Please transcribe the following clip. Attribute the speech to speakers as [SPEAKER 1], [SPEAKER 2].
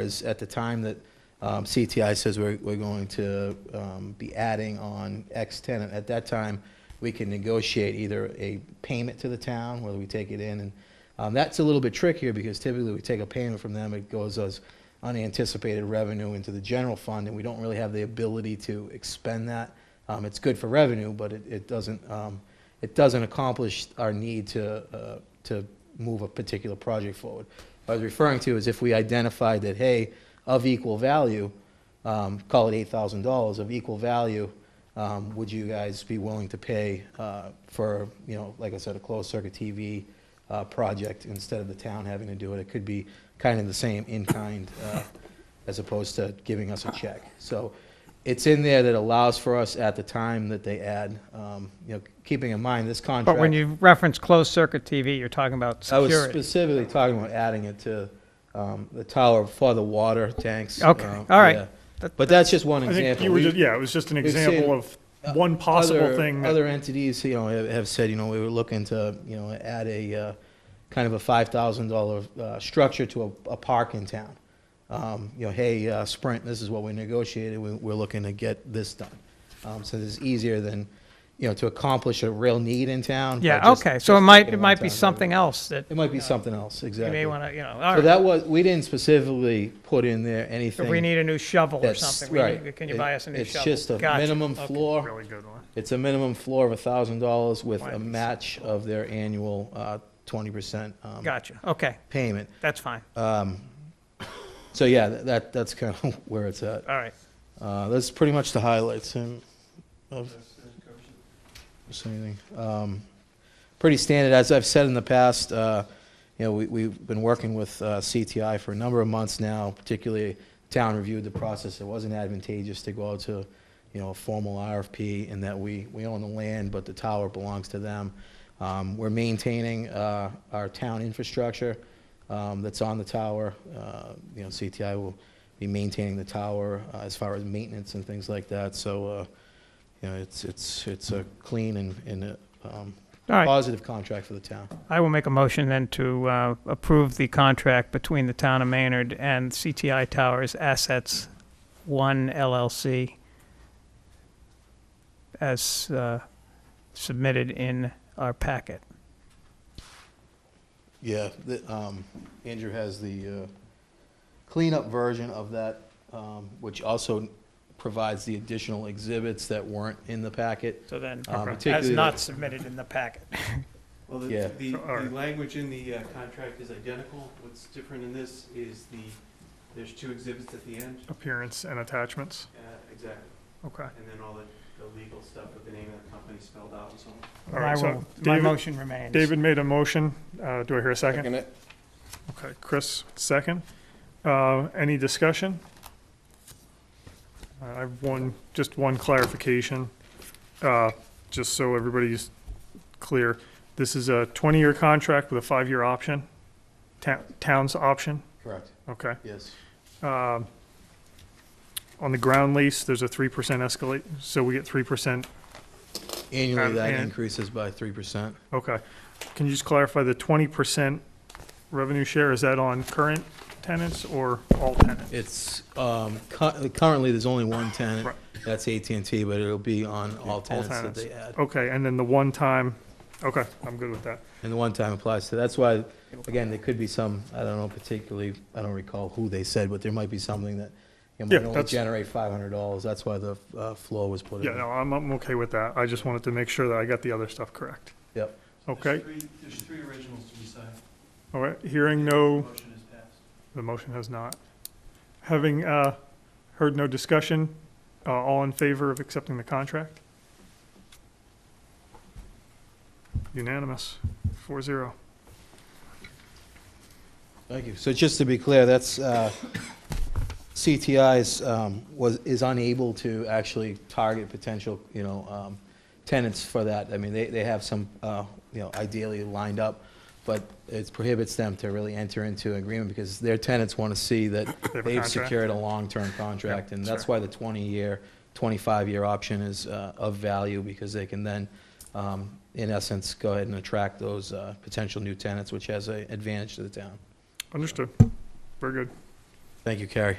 [SPEAKER 1] is at the time that um, CTI says we're, we're going to um, be adding on X tenant, at that time, we can negotiate either a payment to the town, whether we take it in, and um, that's a little bit trickier because typically we take a payment from them, it goes as unanticipated revenue into the general fund, and we don't really have the ability to expend that. Um, It's good for revenue, but it, it doesn't, um, it doesn't accomplish our need to, uh, to move a particular project forward. What I was referring to is if we identified that, hey, of equal value, um, call it eight thousand dollars, of equal value, um, would you guys be willing to pay, uh, for, you know, like I said, a closed circuit TV, uh, project instead of the town having to do it? It could be kind of the same in-kind, uh, as opposed to giving us a check. So it's in there that allows for us at the time that they add, um, you know, keeping in mind this contract.
[SPEAKER 2] But when you reference closed-circuit TV, you're talking about
[SPEAKER 1] I was
[SPEAKER 2] security.
[SPEAKER 1] specifically talking about adding it to um, the tower for the water tanks.
[SPEAKER 2] Okay,
[SPEAKER 1] um,
[SPEAKER 2] all right.
[SPEAKER 1] yeah.
[SPEAKER 2] That-
[SPEAKER 1] But that's just one
[SPEAKER 3] I think
[SPEAKER 1] example.
[SPEAKER 3] you were
[SPEAKER 1] We-
[SPEAKER 3] just, yeah, it was just an
[SPEAKER 1] we've seen
[SPEAKER 3] example of
[SPEAKER 1] uh,
[SPEAKER 3] one possible
[SPEAKER 1] other-
[SPEAKER 3] thing. that-
[SPEAKER 1] Other entities, you know, have- have said, you know, we were looking to, you know, add a, uh, kind of a $5,000 uh, structure to a a park in town. Um, You know, hey, uh, Sprint, this is what we negotiated, We- we're looking to get this done. Um, So this is easier than, you know, to accomplish a real need in town. by
[SPEAKER 2] Yeah,
[SPEAKER 1] just-
[SPEAKER 2] okay, so it
[SPEAKER 1] just
[SPEAKER 2] might,
[SPEAKER 1] taking
[SPEAKER 2] it
[SPEAKER 1] one
[SPEAKER 2] might
[SPEAKER 1] time.
[SPEAKER 2] be something else that
[SPEAKER 1] It might be something else,
[SPEAKER 2] you
[SPEAKER 1] exactly.
[SPEAKER 2] may want to, you know,
[SPEAKER 1] So
[SPEAKER 2] all right,
[SPEAKER 1] that was, we didn't specifically put in there anything.
[SPEAKER 2] if we need a new shovel or
[SPEAKER 1] that's-
[SPEAKER 2] something, we need-
[SPEAKER 1] right.
[SPEAKER 2] can you
[SPEAKER 1] It-
[SPEAKER 2] buy us a new shovel?
[SPEAKER 1] It's just a
[SPEAKER 2] Gotcha.
[SPEAKER 1] minimum
[SPEAKER 2] Okay.
[SPEAKER 1] floor,
[SPEAKER 3] Really good one.
[SPEAKER 1] it's a minimum floor of a thousand dollars with a
[SPEAKER 2] Right.
[SPEAKER 1] match of their annual uh, twenty percent um,
[SPEAKER 2] Gotcha, okay,
[SPEAKER 1] payment.
[SPEAKER 2] that's fine,
[SPEAKER 1] Um, So yeah, tha- that, that's kind of where it's at.
[SPEAKER 2] all right.
[SPEAKER 1] Uh, That's pretty much the highlights um, of, just anything. Um, Pretty standard, as I've said in the past, uh, you know, we, we've been working with uh, CTI for a number of months now, particularly town reviewed the process. It wasn't advantageous to go out to, you know, a formal RFP in that we, we own the land, but the tower belongs to them. Um, We're maintaining uh, our town infrastructure um, that's on the tower. Uh, You know, CTI will be maintaining the tower uh, as far as maintenance and things like that. So, uh, you know, it's, it's, it's a clean and, and a, um,
[SPEAKER 2] All right.
[SPEAKER 1] positive contract for the town.
[SPEAKER 2] I will make a motion then to uh, approve the contract between the town of Maynard and CTI Towers Assets One LLC as uh, submitted in our packet.
[SPEAKER 1] Yeah, the, um, Andrew has the, uh, cleanup version of that, um, which also provides the additional exhibits that weren't in the packet.
[SPEAKER 2] So then,
[SPEAKER 1] Uh,
[SPEAKER 2] as
[SPEAKER 1] particularly-
[SPEAKER 2] not submitted in the packet.
[SPEAKER 4] Well, the,
[SPEAKER 1] Yeah.
[SPEAKER 4] the,
[SPEAKER 3] All right.
[SPEAKER 4] the language in the uh, contract is identical. What's different in this is the, there's two exhibits at the end.
[SPEAKER 3] Appearance and attachments.
[SPEAKER 4] Uh, exactly.
[SPEAKER 3] Okay.
[SPEAKER 4] And then all the, the legal stuff with the name of the company spelled out and so on.
[SPEAKER 3] All right.
[SPEAKER 2] I
[SPEAKER 3] So
[SPEAKER 2] will- My
[SPEAKER 3] David,
[SPEAKER 2] motion remains.
[SPEAKER 3] David made a motion. Uh, do I hear a second?
[SPEAKER 5] Second it.
[SPEAKER 3] Okay. Chris, second. Uh, any discussion? Uh, I have one, just one clarification, uh, just so everybody's clear. This is a twenty-year contract with a five-year option, town, town's option.
[SPEAKER 1] Correct.
[SPEAKER 3] Okay.
[SPEAKER 1] Yes.
[SPEAKER 3] um, on the ground lease, there's a three percent escalate, so we get three percent,
[SPEAKER 1] Annually,
[SPEAKER 3] Um,
[SPEAKER 1] that
[SPEAKER 3] and-
[SPEAKER 1] increases by three percent.
[SPEAKER 3] okay. Can you just clarify the twenty percent revenue share, is that on current tenants or all tenants?
[SPEAKER 1] It's, um, cu- currently, there's only one tenant,
[SPEAKER 3] Right.
[SPEAKER 1] that's AT&T, but it'll be on all tenants that
[SPEAKER 3] tenants.
[SPEAKER 1] they add.
[SPEAKER 3] Okay, and then the one time, okay, I'm good with that.
[SPEAKER 1] And the one-time applies to, that's why, again, there could be some, I don't know particularly, I don't recall who they said, but there might be something that it
[SPEAKER 3] Yeah,
[SPEAKER 1] might only
[SPEAKER 3] that's-
[SPEAKER 1] generate five hundred dollars, that's why the uh, floor was put in.
[SPEAKER 3] Yeah, no, I'm, I'm okay with that, I just wanted to make sure that I got the other stuff correct.
[SPEAKER 1] Yep.
[SPEAKER 4] There's
[SPEAKER 3] Okay,
[SPEAKER 4] three, there's three originals to be signed.
[SPEAKER 3] all right, hearing no,
[SPEAKER 4] Motion is passed.
[SPEAKER 3] the motion has not. Having, uh, heard no discussion, uh, all in favor of accepting the contract? Unanimous, four zero.
[SPEAKER 1] Thank you. So just to be clear, that's, uh, CTI's, um, was, is unable to actually target potential, you know, um, tenants for that. I mean, they, they have some, uh, you know, ideally lined up, but it prohibits them to really enter into agreement because their tenants want to see that
[SPEAKER 3] have a
[SPEAKER 1] they've
[SPEAKER 3] contract.
[SPEAKER 1] secured a long-term contract. And that's
[SPEAKER 3] sure.
[SPEAKER 1] why the 20-year, 25-year option is uh, of value because they can then, um, in essence, go ahead and attract those uh, potential new tenants, which has an advantage to the town.
[SPEAKER 3] Understood. Very good.
[SPEAKER 1] Thank you, Carrie.